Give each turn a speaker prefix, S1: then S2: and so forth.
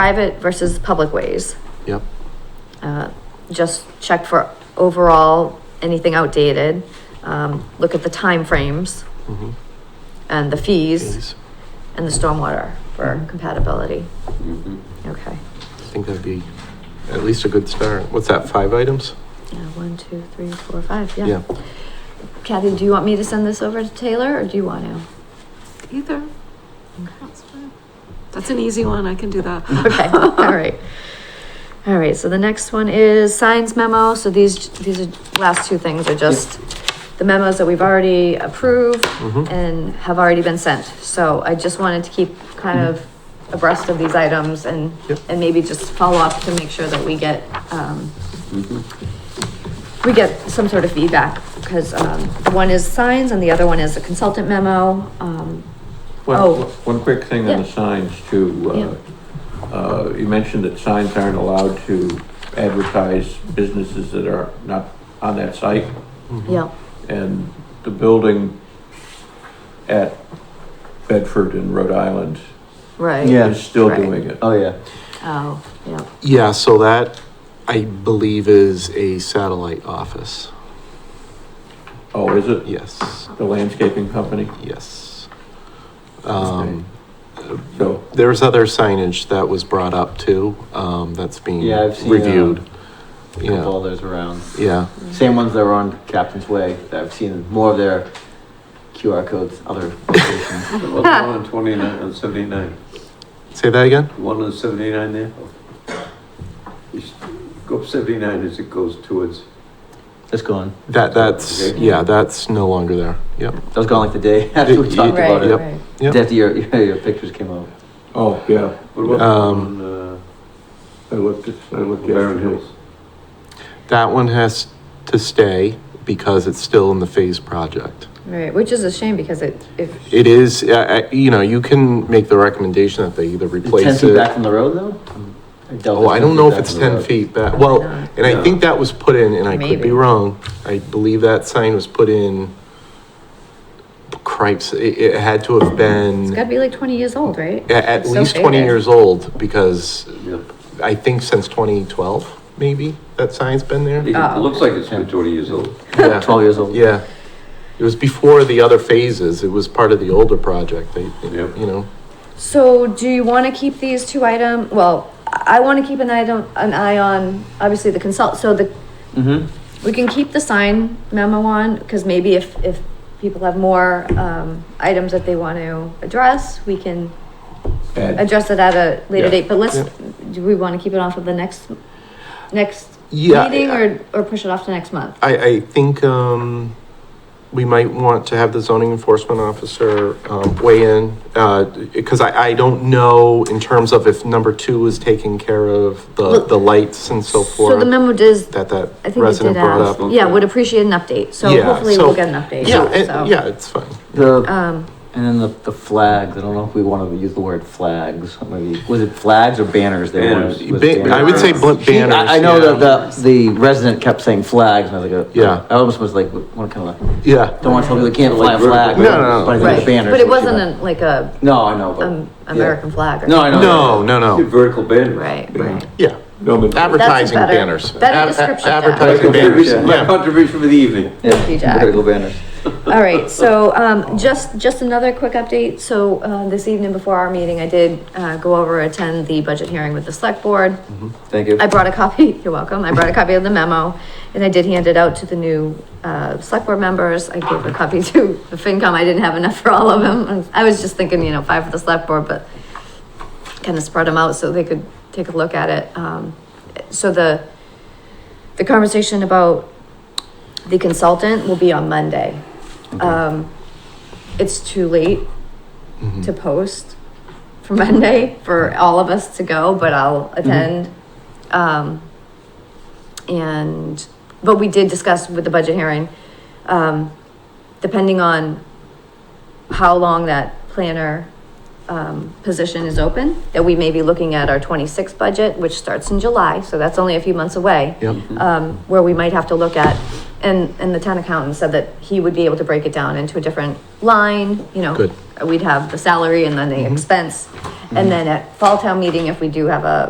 S1: private versus public ways.
S2: Yep.
S1: Uh, Just check for overall, anything outdated, um, look at the timeframes
S2: mhm,
S1: and the fees
S2: Please.
S1: and the stormwater for compatibility.
S3: Mm-hmm.
S1: Okay,
S2: I think that'd be at least a good start. What's that, five items?
S1: yeah, one, two, three, four, five, yeah. Kathy, do you want me to send this over to Taylor or do you want to?
S4: Either. That's fine. That's an easy one, I can do that.
S1: Okay, all right. All right, so the next one is signs memo. So these, these are, last two things are just the memos that we've already approved
S2: Mhm.
S1: and have already been sent. So I just wanted to keep kind of abreast of these items and,
S2: Yep.
S1: and maybe just follow up to make sure that we get, um, we get some sort of feedback, because, um, one is signs and the other one is a consultant memo, um, Oh.
S5: One, one quick thing on the
S1: Yeah.
S5: signs too. uh, Uh, you mentioned that signs aren't allowed to advertise businesses that are not on that site.
S2: Mm-hmm.
S1: yeah.
S5: And the building at Bedford in Rhode Island
S1: Right.
S6: Yeah.
S3: Mm-hmm.
S5: is still
S1: Right.
S5: doing it.
S6: Oh, yeah.
S1: Oh, yeah,
S2: Yeah, so that, I believe, is a satellite office.
S5: Oh, is it?
S2: Yes,
S5: The landscaping company?
S2: yes. Um,
S5: So,
S2: There's other signage that was brought up too, um, that's being
S6: Yeah, I've seen, uh,
S2: reviewed. Yeah,
S6: Couple others around.
S2: yeah,
S6: Same ones that were on Captain's Way. that I've seen more of their QR codes, other locations.
S3: Well, the one on twenty-nine, on seventy-nine,
S2: say that again?
S3: The one on seventy-nine there? You s- Go up seventy-nine as it goes towards,
S6: It's gone.
S2: That, that's, yeah, that's no longer there, yep.
S6: That was gone like the day after we
S2: Yeah,
S6: talked
S1: right,
S6: about it.
S1: right.
S2: Yep.
S6: After your, your, your pictures came out.
S5: oh, yeah,
S3: what about the
S2: Um,
S3: one on,
S5: I looked, at- I
S3: uh,
S5: looked.
S3: Barren
S5: yesterday.
S3: Hills?
S2: That one has to stay because it's still in the phase project.
S1: Right, which is a shame because it, if,
S2: It is, uh, uh, you know, you can make the recommendation that they either
S6: Is it ten
S2: replace
S6: feet back
S2: it.
S6: from the road though? doubt
S2: Oh, I don't know if
S6: back
S2: it's
S6: from the
S2: ten
S6: road.
S2: feet back, well,
S1: No.
S2: and I
S3: No.
S2: think that was put in, and I could
S1: Maybe.
S2: be wrong. I believe that sign was put in, cripes, it, it had to have
S1: it's
S2: been
S1: gotta be like twenty years old, right?
S2: a- at
S1: It's so
S2: least twenty
S1: faded.
S2: years old, because
S3: Yeah.
S2: I think since twenty twelve, maybe, that sign's been there.
S3: It
S1: Oh.
S3: looks like it's been twenty years old.
S2: Yeah.
S6: Twelve years old.
S2: Yeah. It was before the other phases. It was part of the older project. They, they-
S3: Yep.
S2: you know,
S1: So do you wanna keep these two item, well, I I wanna keep an item, an eye on, obviously the consult, so the,
S6: Mm-hmm.
S1: we can keep the sign memo on, cause maybe if, if people have more, um, items that they wanna address, we can
S5: Add-
S1: address it at a later
S5: Yeah.
S1: date, but let's,
S2: Yeah.
S1: do we wanna keep it on for the next, next
S2: Yeah,
S1: meeting
S2: I-
S1: or, or push it off to next month?
S2: I, I think, um, we might want to have the zoning enforcement officer, um, weigh in. Uh, cause I, I don't know in terms of if number two is taking care of the,
S1: Look,
S2: the lights and so
S1: So the
S2: forth.
S1: memo does,
S2: That
S1: I
S2: that
S1: think it did
S2: resident brought
S1: ask,
S2: up.
S3: up.
S1: yeah, would appreciate an update, so
S2: Yeah,
S1: hopefully
S2: so-
S1: we'll get an update.
S2: Yeah, and-
S1: so,
S2: yeah, it's fine.
S6: The
S1: Um,
S6: and then the, the flags. I don't know if we want to use the word flags. Maybe was it flags or banners? They wanted-
S3: Banners.
S6: was
S2: Ba-
S6: banners.
S2: I would say bl-
S6: He- I-
S2: banners.
S6: I know
S2: yeah.
S6: that the, the resident kept saying flags, and I was like, uh,
S2: Yeah.
S6: I almost was like, what kind of, like,
S2: Yeah,
S6: don't want to tell people they can't fly a
S3: Like vertical
S6: flag.
S2: No, no, no.
S6: But I think
S1: right,
S6: the banners.
S1: but it
S6: were too
S1: wasn't
S6: bad.
S1: a- like a,
S6: No, I know, but,
S1: um, American flag or.
S6: no, I know.
S2: no, no,
S5: Oh.
S3: Yeah,
S2: no,
S3: Vertical banner.
S1: Right, right.
S2: yeah.
S5: No, but-
S2: Advertising
S1: better-
S2: banners.
S1: better
S2: Ad-
S1: description, yeah.
S2: Advertising banners,
S3: Contribution, my
S2: yeah.
S3: contribution for the evening.
S6: Yeah,
S1: Thank you, Jack.
S6: Vertical banners.
S1: All right, so, um, just, just another quick update, so, uh, this evening before our meeting, I did, uh, go over, attend the budget hearing with the select board.
S6: Thank you.
S1: I brought a copy, you're welcome, I brought a copy of the memo, and I did hand it out to the new, uh, select board members, I gave a copy to the FinCom, I didn't have enough for all of them, I was just thinking, you know, five for the select board, but kind of spread them out so they could take a look at it, um, so the, the conversation about the consultant will be on Monday. Um, it's too late
S2: Mm-hmm.
S1: to post for Monday for all of us to go, but I'll attend. Um, and, but we did discuss with the budget hearing, um, depending on how long that planner, um, position is open, that we may be looking at our twenty-six budget, which starts in July, so that's only a few months away
S2: Yep.
S1: um, where we might have to look at, and, and the town accountant said that he would be able to break it down into a different line, you know.
S2: Good.
S1: We'd have the salary and then the expense, And then at fall town meeting, if we do have a